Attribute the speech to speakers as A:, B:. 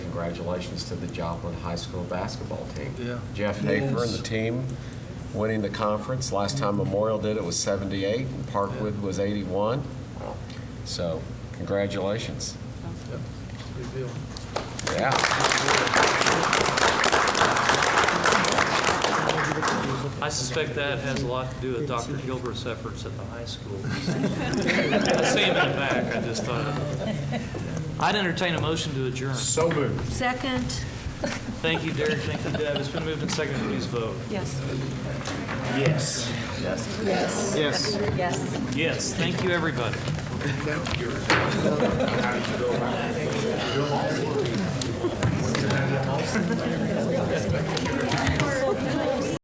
A: congratulations to the Joplin High School basketball team.
B: Yeah.
A: Jeff Hafer and the team winning the conference. Last time Memorial did it was 78, and Parkwood was 81. So congratulations.
B: Yep. Good deal.
A: Yeah.
B: I suspect that has a lot to do with Dr. Gilbert's efforts at the high school. I see him in the back, I just thought. of- I'd entertain a motion to adjourn.
C: So moved.
D: Second?
B: Thank you, Derek, thank you, Deb. It's been moved and seconded, please vote.
D: Yes.
C: Yes. Yes. Yes.
D: Yes.
B: Yes, thank you, everybody.